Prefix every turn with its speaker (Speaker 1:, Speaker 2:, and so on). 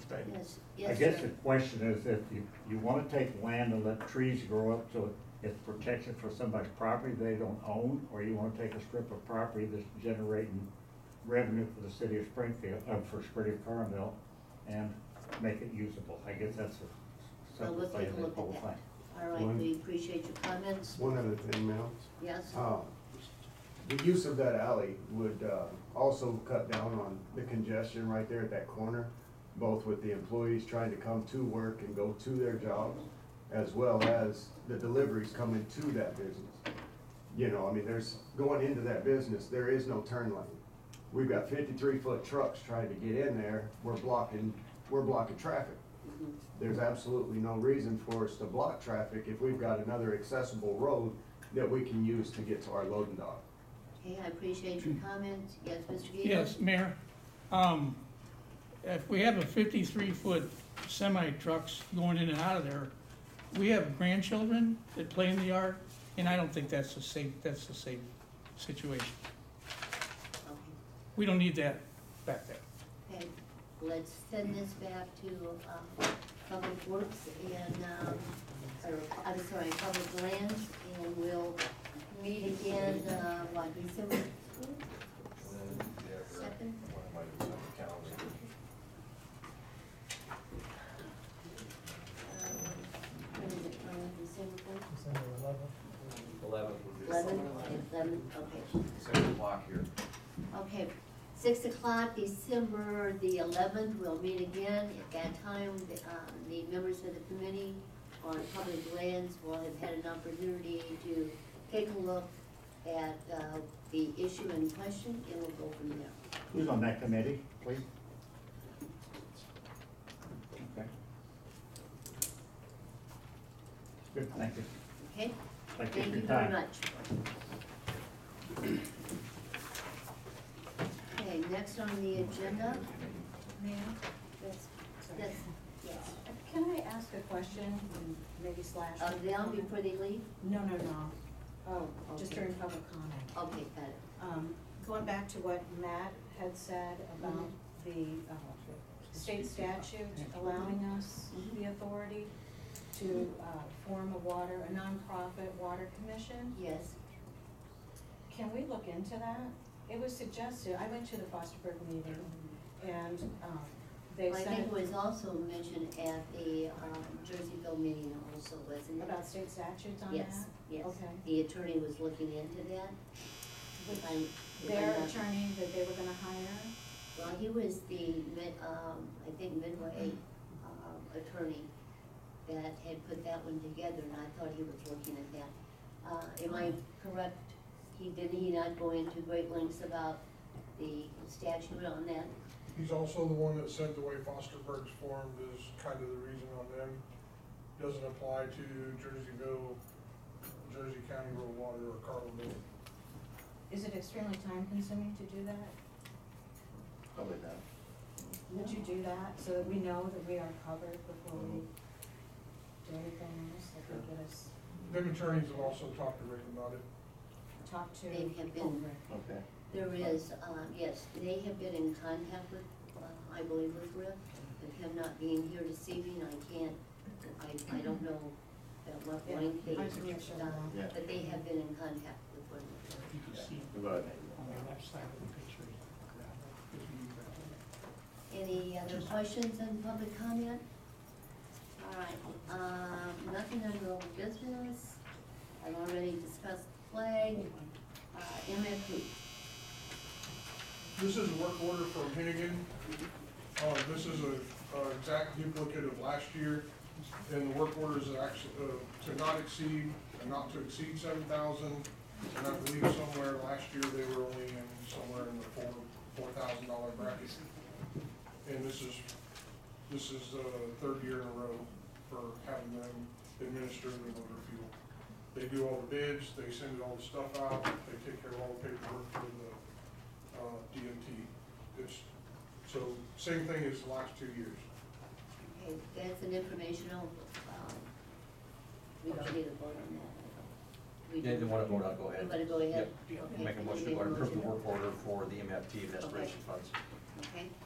Speaker 1: statement.
Speaker 2: Yes,
Speaker 1: I
Speaker 2: yes,
Speaker 1: guess
Speaker 2: sir.
Speaker 1: the question is if you, you wanna take land and let trees grow up so it's protection for somebody's property they don't own, or you wanna take a strip of property that's generating revenue for the city of Springfield, uh, for City of Carmel, and make it usable. I guess that's a
Speaker 2: Well,
Speaker 1: separate
Speaker 2: let's
Speaker 1: thing,
Speaker 2: take a
Speaker 1: the
Speaker 2: look
Speaker 1: whole
Speaker 2: at
Speaker 1: thing.
Speaker 2: that. All right,
Speaker 3: One-
Speaker 2: we appreciate your comments.
Speaker 3: One other thing, Mel.
Speaker 2: Yes,
Speaker 3: Uh, The use of that alley would uh, also cut down on the congestion right there at that corner, both with the employees trying to come to work and go to their jobs, as well as the deliveries coming to that business. You know, I mean, there's, going into that business, there is no turn lane. We've got fifty-three foot trucks trying to get in there, we're blocking, we're blocking traffic. There's absolutely no reason for us to block traffic if we've got another accessible road that we can use to get to our loading dock.
Speaker 2: okay, I appreciate your comments. Yes, Mr. Gator?
Speaker 4: Yes, Mayor, um, if we have a fifty-three foot semi trucks going in and out of there, we have grandchildren that play in the yard, and I don't think that's a safe, that's a safe situation.
Speaker 2: Okay,
Speaker 4: We don't need that back there.
Speaker 2: Okay, let's send this back to, um, Public Works and, um, or, I'm sorry, Public Lands, and we'll meet again, uh, what, December second? When is it, um, December fourth?
Speaker 5: Eleven would be.
Speaker 2: Eleven, eleven, okay.
Speaker 5: Six o'clock here.
Speaker 2: Okay, six o'clock, December the eleventh, we'll meet again. At that time, the, um, the members of the committee on public lands will have had an opportunity to take a look at, uh, the issue in question, and we'll go from there.
Speaker 1: Who's on that committee, please? Okay. Good, thank you.
Speaker 2: Okay?
Speaker 1: Thank you
Speaker 2: Thank
Speaker 1: for
Speaker 2: you
Speaker 1: your
Speaker 2: very
Speaker 1: time.
Speaker 2: much. Okay, next on the agenda,
Speaker 6: Ma'am,
Speaker 2: yes, yes, yes.
Speaker 6: can I ask a question, and maybe slash?
Speaker 2: Uh, down before they leave?
Speaker 6: No, no, no. Oh, just
Speaker 2: Okay.
Speaker 6: during public comment.
Speaker 2: Okay, got it.
Speaker 6: Um, going back to what Matt had said about the,
Speaker 2: Mm-hmm.
Speaker 6: uh, state statute allowing us
Speaker 2: Mm-hmm.
Speaker 6: the authority to, uh, form a water, a nonprofit water commission.
Speaker 2: Yes,
Speaker 6: Can we look into that? It was suggested, I went to the Fosterburg meeting, and, um, they
Speaker 2: Well, I
Speaker 6: sent.
Speaker 2: think it was also mentioned at the um, Jerseyville meeting also, wasn't it?
Speaker 6: About state statutes on that?
Speaker 2: Yes, yes.
Speaker 6: Okay.
Speaker 2: The attorney was looking into that.
Speaker 6: With
Speaker 2: if I'm- if I'm
Speaker 6: Their
Speaker 2: not-
Speaker 6: attorney that they were gonna hire,
Speaker 2: Well, he was the mid, um, I think Midway, um, attorney that had put that one together and I thought he was looking at that. Uh, am I correct? He, did he not go into great lengths about the statute on that?
Speaker 7: He's also the one that said the way Fosterburg's formed is kind of the reason on them. Doesn't apply to Jerseyville, Jersey County Rural Water or Carlinville.
Speaker 6: is it extremely time consuming to do that?
Speaker 5: Probably not.
Speaker 6: Would you do that so that we know that we are covered before we do anything else that could get us
Speaker 7: Them attorneys have also talked to Rick about it.
Speaker 6: talked to?
Speaker 2: They have been-
Speaker 6: over?
Speaker 5: Okay.
Speaker 2: There is, um, yes, they have been in contact with, uh, I believe with Rick, with him not being here this evening, I can't, I, I don't know at what
Speaker 6: Yeah,
Speaker 2: point they,
Speaker 6: I can make sure of
Speaker 2: uh,
Speaker 6: that.
Speaker 5: Yeah.
Speaker 2: but they have been in contact with one another.
Speaker 4: You can see
Speaker 5: But
Speaker 4: on the left side of the picture, gravel.
Speaker 2: Any other questions and public comment? All right, um, nothing under old business, I've already discussed flag, uh, MFP.
Speaker 7: This is a work order from Hannigan. Uh, this is a, a exact duplicate of last year. And the work order is actually, uh, to not exceed, and not to exceed seven thousand. And I believe somewhere last year, they were only in, somewhere in the four, four thousand dollar bracket. And this is, this is the third year in a row for having them administer the motor fuel. They do all the bids, they send all the stuff out, they take care of all the paperwork for the uh, DMT. It's, so same thing as the last two years.
Speaker 2: Okay, that's an informational, um, we don't need a vote on that. We
Speaker 5: Yeah,
Speaker 2: do-
Speaker 5: they wanna vote, I'll go ahead.
Speaker 2: You wanna go ahead?
Speaker 5: Yep.
Speaker 2: Okay.
Speaker 5: Make a motion to approve the work order for the MFT of desperation funds.
Speaker 2: Okay,